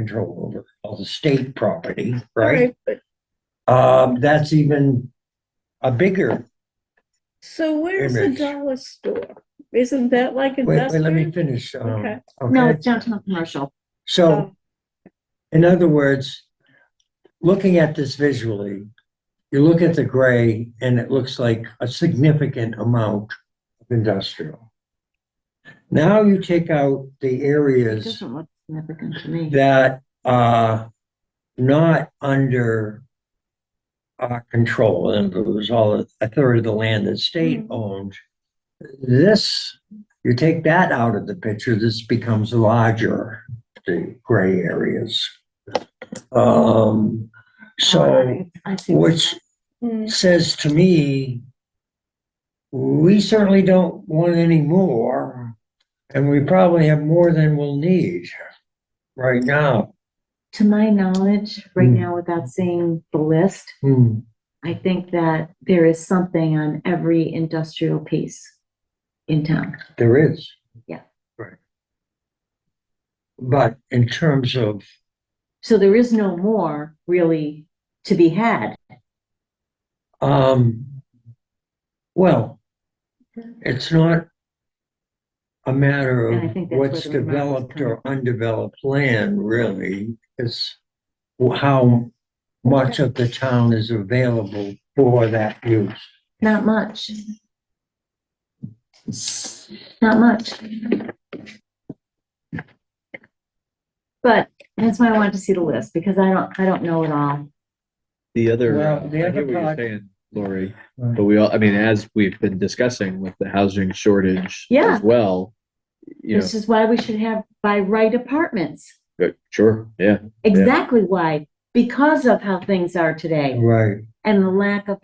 control over, all the state property, All right? but- Um, that's even a bigger, So where's the Image. dollar store? Isn't that like wait, wait, let me industrial? finish. Oh, Okay. um, No, Okay, it's downtown commercial. so Oh. in other words, looking at this visually, you look at the gray and it looks like a significant amount of industrial. Now you take out the It areas doesn't look significant to me. that are not under our control, and it was all a third of the land that state Mm-hmm. Mhm. owned. This, you take that out of the picture, this becomes larger, the gray areas. Um, so, I see. what which Mm, says to me, we certainly don't want any more, and we probably have more than we'll need right now. To my knowledge, right Hmm. now, without seeing the list, Hmm, I think that there is something on every industrial piece in town. there is. Yeah. Right. But in terms of, So there is no more really to be had. um, well, it's not a matter And I of think that's where what's the remark was developed coming or undeveloped land, really. It's wh- how much of the town is available for that use. Not much. Not much. But that's why I wanted to see the list, because I don't, I don't know it all. The other, Well, uh, I the hear other what you're part- saying, Lori, Right. but we all, I mean, as we've been discussing with the housing shortage Yeah. as well, you know, This is why we should have by right apartments. but sure, yeah, Exactly why, because of how things are today Right, and the lack of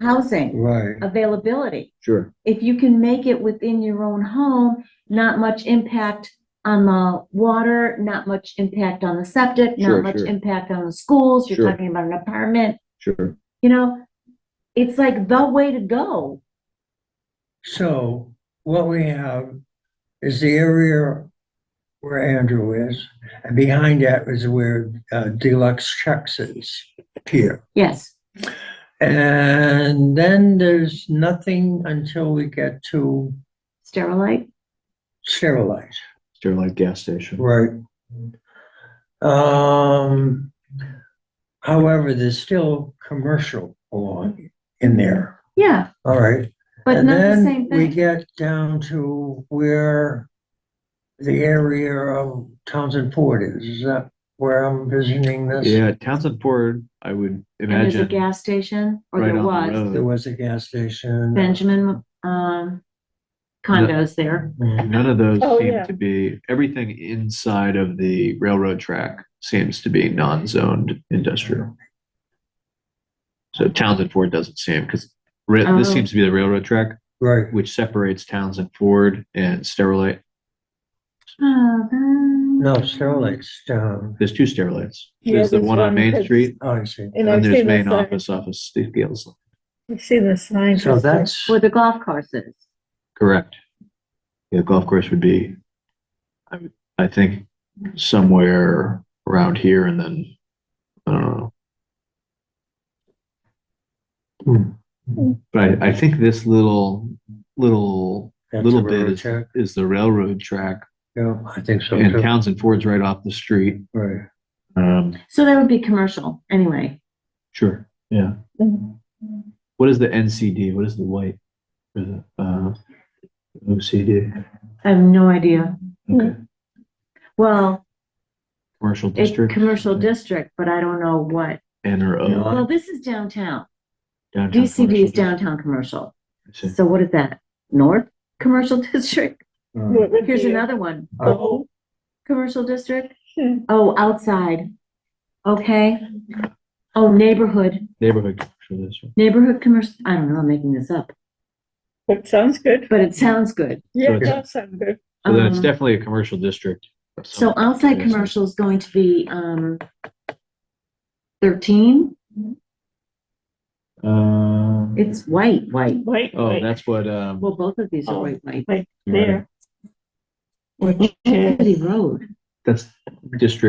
housing right, availability. sure. If you can make it within your own home, not much impact on the water, not much impact on the septic, Sure, not much sure. impact on the schools. You're Sure. talking about an apartment, Sure. you know? It's like the way to go. so what we have is the area where Andrew is, and behind that is where uh, Deluxe Chucks is here. Yes. And then there's nothing until we get to Sterilite, Sterilite. Sterling gas station. Right. Um, however, there's still commercial along in there, yeah, all right? but And not the then same We thing. get down to where the area of Townsend Ford is. Is that where I'm visioning this? Yeah, Townsend Ford, I would And there's a imagine, gas station, or right there on the was. road. There was a gas station. Benjamin, um, condos there. Mm, none of those Oh, yeah. seem to be, everything inside of the railroad track seems to be non-zoned industrial. So Townsend Ford doesn't seem, because this Oh. seems to be the railroad track. Right, which separates Townsend Ford and Sterilite. Oh, then- no, Sterling's down. There's two Sterilites. Yeah, There's the there's one on one Main that's- Street, Oh, I see. And and I've there's seen the main sign, office off of Steve Gales. I've seen the sign. So that's, Where the golf course is. Correct. The golf course would be, I, would- I think, somewhere around here and then, I don't know. Hmm. But I, I think this little, little, that's a little bit railroad is, track. is the railroad track Yeah, I think so and too. Townsend Ford's right off the street. Right. Um, So that would be commercial, anyway. sure, yeah. Mhm. What is the NCD? What is the white? Or the, uh, OCD? I have no idea. Okay, Well, commercial it's district? commercial district, but I don't know what. N or O? No. Well, this is downtown. DCD Downtown is commercial district. downtown commercial. I see. So what is that? North Commercial District? Uh, What would Here's be it? another one. Oh. Commercial district? Hmm. Oh, outside. Okay. Oh, neighborhood, Neighborhood commercial district. neighborhood commercial. I don't know, I'm making this up, That sounds good. but it sounds good. Yeah, it it's- does sound good. So then it's Um, definitely a commercial district. of So some- outside Yes. commercial is going to be, um, thirteen, Um, it's white, white. Wait, oh, wait, that's what, um. Well, both of these are Oh. white, white. there. Which is. City Road. That's district